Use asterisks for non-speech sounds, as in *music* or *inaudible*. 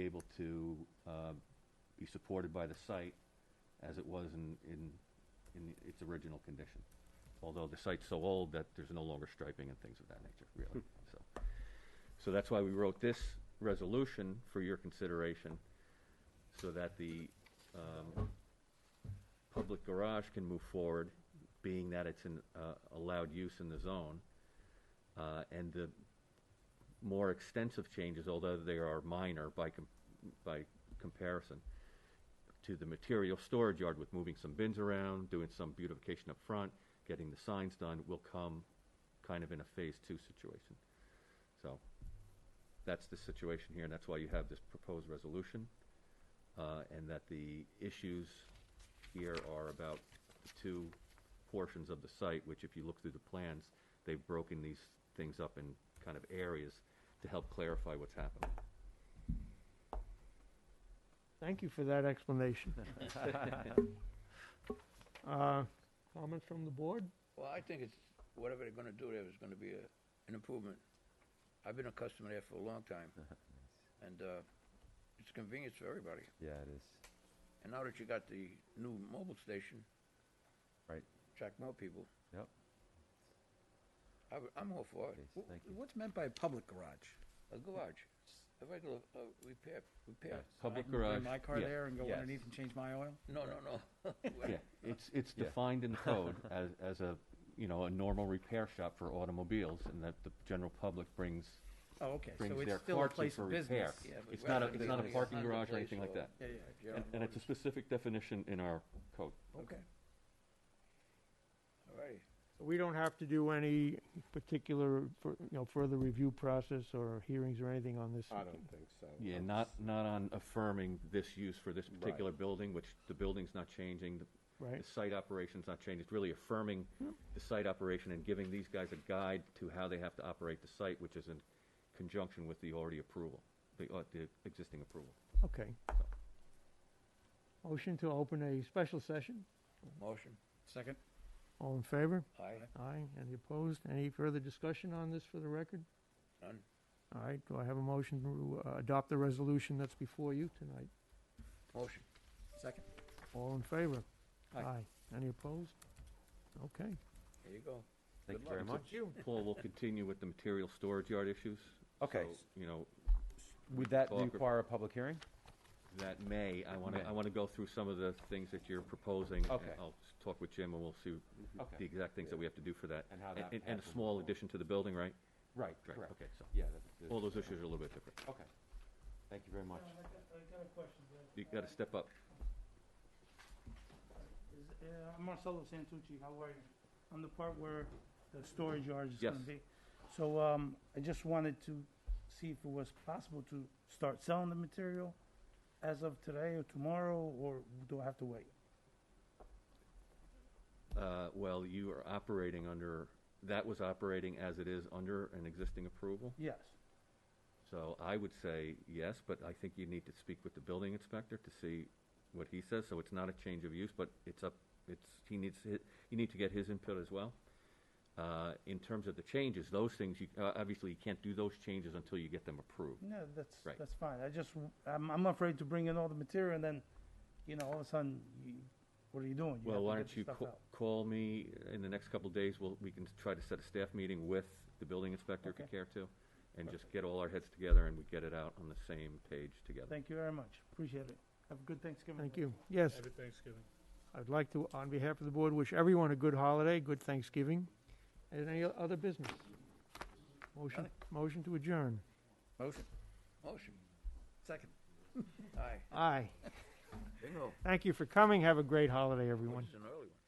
able to uh, be supported by the site as it was in, in, in its original condition. Although the site's so old that there's no longer striping and things of that nature, really, so. So that's why we wrote this resolution for your consideration, so that the um, public garage can move forward, being that it's an uh, allowed use in the zone. Uh, And the more extensive changes, although they are minor by, com- by comparison, to the material storage yard with moving some bins around, doing some beautification up front, getting the signs done, will come kind of in a phase two situation. So that's the situation here, and that's why you have this proposed resolution. uh, And that the issues here are about the two portions of the site, which if you look through the plans, they've broken these things up in kind of areas to help clarify what's happening. Thank you for *laughs* that explanation. Uh, Comments from the board? Well, I think it's, whatever they're gonna do there is gonna be a, an improvement. I've been a customer there for a long *laughs* time, and, uh, it's convenience for everybody. Yeah, it is. And now that you got the new mobile station, Right. attract more people. Yep. I, w- I'm all for it. Yes, Wh- thank you. What's meant by public garage? A garage, a regular, uh, repair, repair. I Public can garage. Bring my car yeah, there and go yes. underneath and change my oil? No, no, no. Yeah, *laughs* it's, it's Yeah. defined *laughs* in code as, as a, you know, a normal repair shop for automobiles and that the general public brings, Oh, okay, so brings their it's still a carts in place for of repair. business. Yeah, but It's not a, rather it's than not a being a parking hundred garage or place anything like or- that. Yeah, yeah, Yeah, And- And it's a specific definition in our code. okay. all righty. We don't have to do any particular, fur- you know, further review process or hearings or anything on this? I don't think so. Yeah, I'm not, s- not on affirming this use for this particular building, which the building's not changing, the Right? the site operation's not changed, it's really affirming the site operation and giving these guys a guide to how they have to operate the site, which is in conjunction with the already approval, the, uh, the existing approval. Okay. Motion to open a special session? Motion, Second? All in favor? aye, Aye. Any opposed? Any further discussion on this for the record? none. All right, do I have a motion to uh, adopt the resolution that's before you tonight? Motion, Second. All in favor? Aye. Any opposed? Okay. there you go. Thank Good you very luck. much. Paul will continue with the material storage yard issues. Okay. So, You know, Would that Talk- require a public hearing? that may, I want to, I May. want to go through some of the things that you're proposing. and Okay. I'll s- talk with Jim and we'll see the Okay, exact things that we have to do for that. And how that And a happens. small addition to the building, right? right, Right, correct. okay, so, Yeah. that- that- all those issues are a little bit different. Okay. Thank you very much. got a question, You got to step up. Is, uh, I'm Marcelo Santucci, how are you? On the part where the storage yard is Yes. gonna be. So, um, I just wanted to see if it was possible to start selling the material as of today or tomorrow, or do I have to wait? Uh, Well, you are operating under, that was operating as it is under an existing approval. Yes, So I would say yes, but I think you need to speak with the building inspector to see what he says. So it's not a change of use, but it's up, it's, he needs, hi- you need to get his input as well. Uh, In terms of the changes, those things, you, uh, obviously, you can't do those changes until you get them approved. no, that's, Right. that's fine, I just, w- I'm, I'm afraid to bring in all the material and then, you know, all of a sudden, you, what are you doing? Well, why have don't to you get the stuff ca- out. call me in the next couple of days, we'll, we can try to set a staff meeting with the building inspector if you Okay. care to, and just get all our heads together and we get it out on the same page together. Thank you very much, appreciate it, have a good Thanksgiving. Thank you. Yes, Happy Thanksgiving. I'd like to, on behalf of the board, wish everyone a good holiday, good Thanksgiving, and any o- other business. Motion, motion to adjourn. Motion. motion, Second. aye. Aye. Bingo. Thank you for coming. Have a great holiday, Well, everyone. This is an early one.